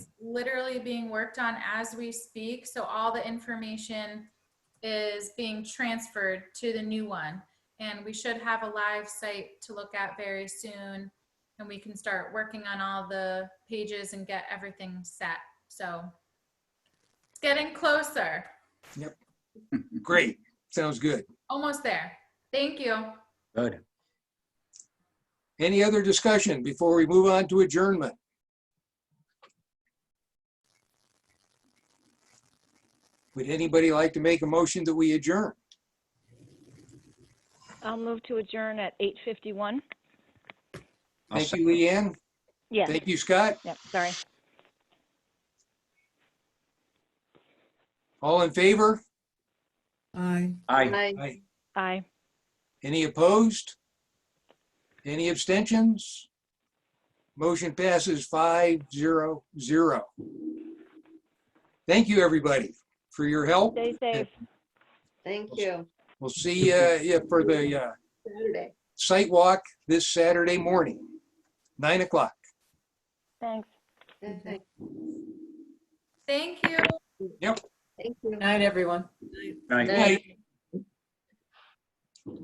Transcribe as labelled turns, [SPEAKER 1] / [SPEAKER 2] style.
[SPEAKER 1] literally being worked on as we speak. So all the information is being transferred to the new one. And we should have a live site to look at very soon. And we can start working on all the pages and get everything set. So it's getting closer,
[SPEAKER 2] Great. Sounds good.
[SPEAKER 1] almost there. Thank you.
[SPEAKER 3] Good.
[SPEAKER 2] Any other discussion before we move on to adjournment? Would anybody like to make a motion that we adjourn?
[SPEAKER 4] I'll move to adjourn at 8:51.
[SPEAKER 3] I'll
[SPEAKER 2] Thank
[SPEAKER 3] sec-
[SPEAKER 2] you, Leanne.
[SPEAKER 4] Yes,
[SPEAKER 2] Thank you, Scott.
[SPEAKER 4] yep, sorry.
[SPEAKER 2] All in favor?
[SPEAKER 5] Aye.
[SPEAKER 3] Aye.
[SPEAKER 2] Aye.
[SPEAKER 4] Aye.
[SPEAKER 2] Any opposed? Any abstentions? Motion passes five zero zero. Thank you, everybody, for your help.
[SPEAKER 4] Stay safe.
[SPEAKER 6] Thank you.
[SPEAKER 2] We'll see you for the uh,
[SPEAKER 6] Saturday.
[SPEAKER 2] site walk this Saturday morning, nine o'clock.
[SPEAKER 4] Thanks.
[SPEAKER 6] Thank
[SPEAKER 1] Thank you.
[SPEAKER 6] you.
[SPEAKER 5] Night, everyone.
[SPEAKER 3] Aye.
[SPEAKER 2] Good night.